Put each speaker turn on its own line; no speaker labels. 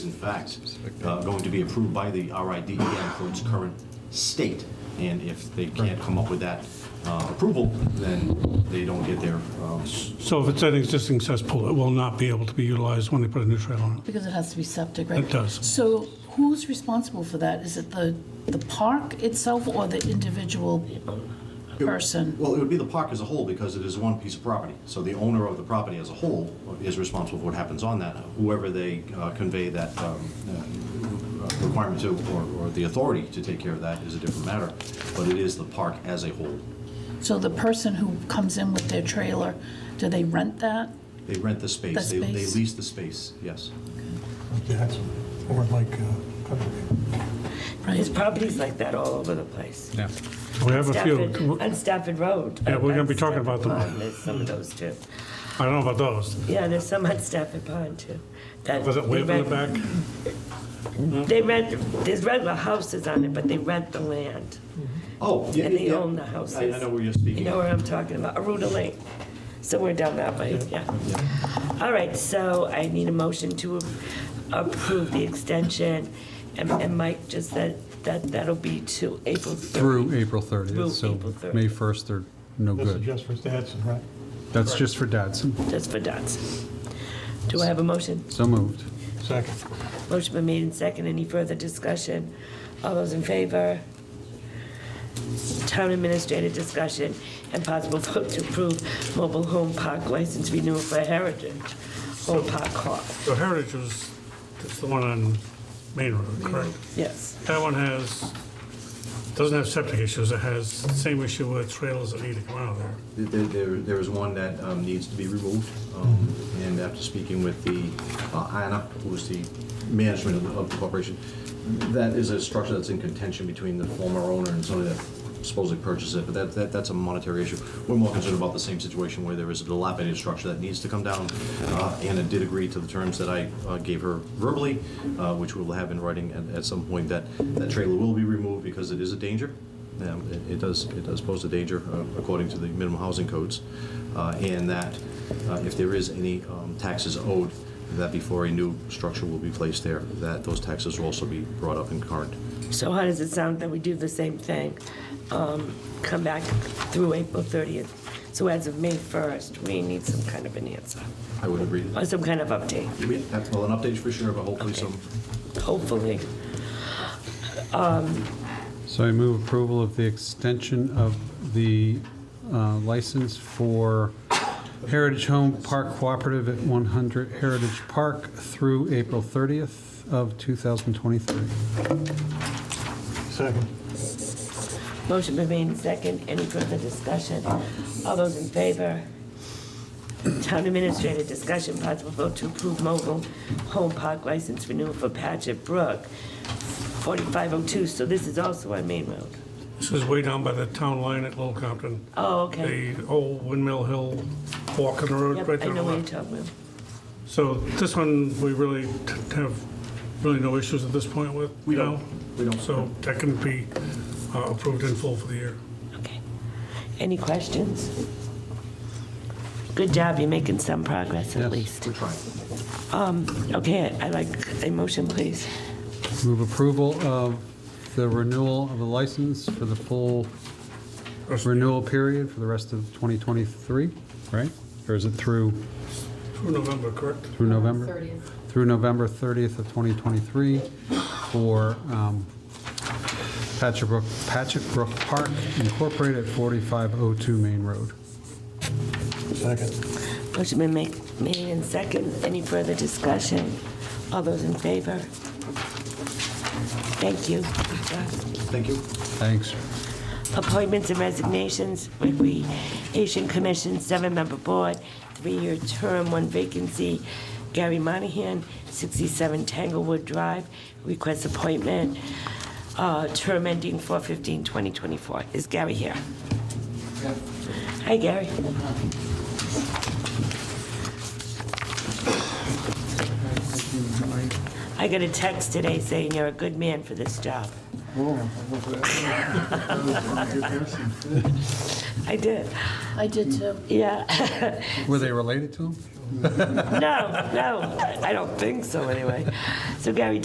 in fact, uh, going to be approved by the RIDEA for its current state. And if they can't come up with that uh, approval, then they don't get their, um,
So if it's an existing cesspool, it will not be able to be utilized when they put a new trail on it.
Because it has to be septic, right?
It does.
So who's responsible for that? Is it the, the park itself or the individual person?
well, it would be the park as a whole because it is one piece of property. So the owner of the property as a whole is responsible for what happens on that, whoever they uh, convey that um, uh, requirement to or or the authority to take care of that is a different matter. But it is the park as a whole.
So the person who comes in with their trailer, do they rent that?
They rent the space.
The
They they
space.
lease the space, yes.
That's over like uh, Country.
Right.
There's properties like that all over the place.
Yeah.
We have a few.
Stafford- On Stafford Road.
Yeah, we're gonna be
On
talking about
Stafford
them.
Pond, There's some of those too.
I don't know about those.
Yeah, there's some on Stafford Pond too. That
Was it way
they
up in the back?
rent- They rent, there's regular houses on it, but they rent the land.
Oh, yeah.
And they
yeah.
own the
I
houses.
I know where you're
You
speaking.
know where I'm talking about, Aruda Lane. Somewhere down that way, yeah. All right, so I need a motion to approve the extension. And and Mike just said that that'll be to April 30th.
Through April 30th,
Through
so
April 30th.
May 1st, they're no
This is
good.
just for Stetson, right?
That's just for Dadson.
Just for Dotson. Do I have a motion?
So moved.
Second.
Motion been made and second. Any further discussion? All those in favor? Town administrator discussion and possible vote to approve mobile home park license renewal for Heritage Home Park Hall.
So Heritage was, that's the one on Main Road, correct?
Yes.
That one has, doesn't have septic issues, it has the same issue with trailers that need to come out of there.
There, there- there is one that um, needs to be removed, um, and after speaking with the, uh, Anna, who's the management of the- of the corporation, that is a structure that's in contention between the former owner and somebody that supposedly purchased it, but that, that, that's a monetary issue. We're more concerned about the same situation where there is a dilapidated structure that needs to come down. Uh, Anna did agree to the terms that I uh, gave her verbally, uh, which we will have in writing at, at some point, that, that trailer will be removed because it is a danger. Um, it- It does, it does pose a danger uh, according to the minimum housing codes, uh, and that uh, if there is any um, taxes owed, that before a new structure will be placed there, that those taxes will also be brought up in current.
So how does it sound that we do the same thing? Um, Come back through April 30th. So as of May 1st, we need some kind of an answer
I would agree.
or some kind of update.
We have- Well, an update for sure, but hopefully
Okay.
some,
Hopefully.
So I move approval of the extension of the uh, license for Heritage Home Park Cooperative at 100 Heritage Park through April 30th of 2023.
Second.
Motion been made and second. Any further discussion? All those in favor? Town Administrator, discussion, possible vote to approve mobile home park license renewal for Patchett Brook, 4502. So this is also on Main Road.
This is way down by the town line at Little Compton,
Oh, okay.
the old Windmill Hill walk in the road
Yep,
right
I
there on the
know what you're
left.
talking about.
So this one, we really t- have really no issues at this point with,
We
you know?
don't. We don't.
So that can be uh, approved in full for the year.
Okay. Any questions? Good job, you're making some progress at
Yes.
least.
we're trying.
Okay, I like a motion, please.
Move approval of the renewal of the license for the full renewal period for the rest of 2023, right? Or is it through,
Through November, correct?
through November? Through November 30th of 2023 for um, Patrick Brook, Patrick Brook Park Incorporated at 4502 Main Road.
Second.
Motion been make- made in second. Any further discussion? All those in favor? Thank you.
Thank you.
Thanks.
Appointments and resignations, Recreation Commission, seven-member board, three-year term, one vacancy. Gary Monahan, 67 Tanglewood Drive, requests appointment, uh, term ending 4/15/2024. Is Gary here? Hi, Gary. I got a text today saying you're a good man for this job. I did,
I did too.
yeah.
Were they related to him?
No, no, I don't think so, anyway. So Gary,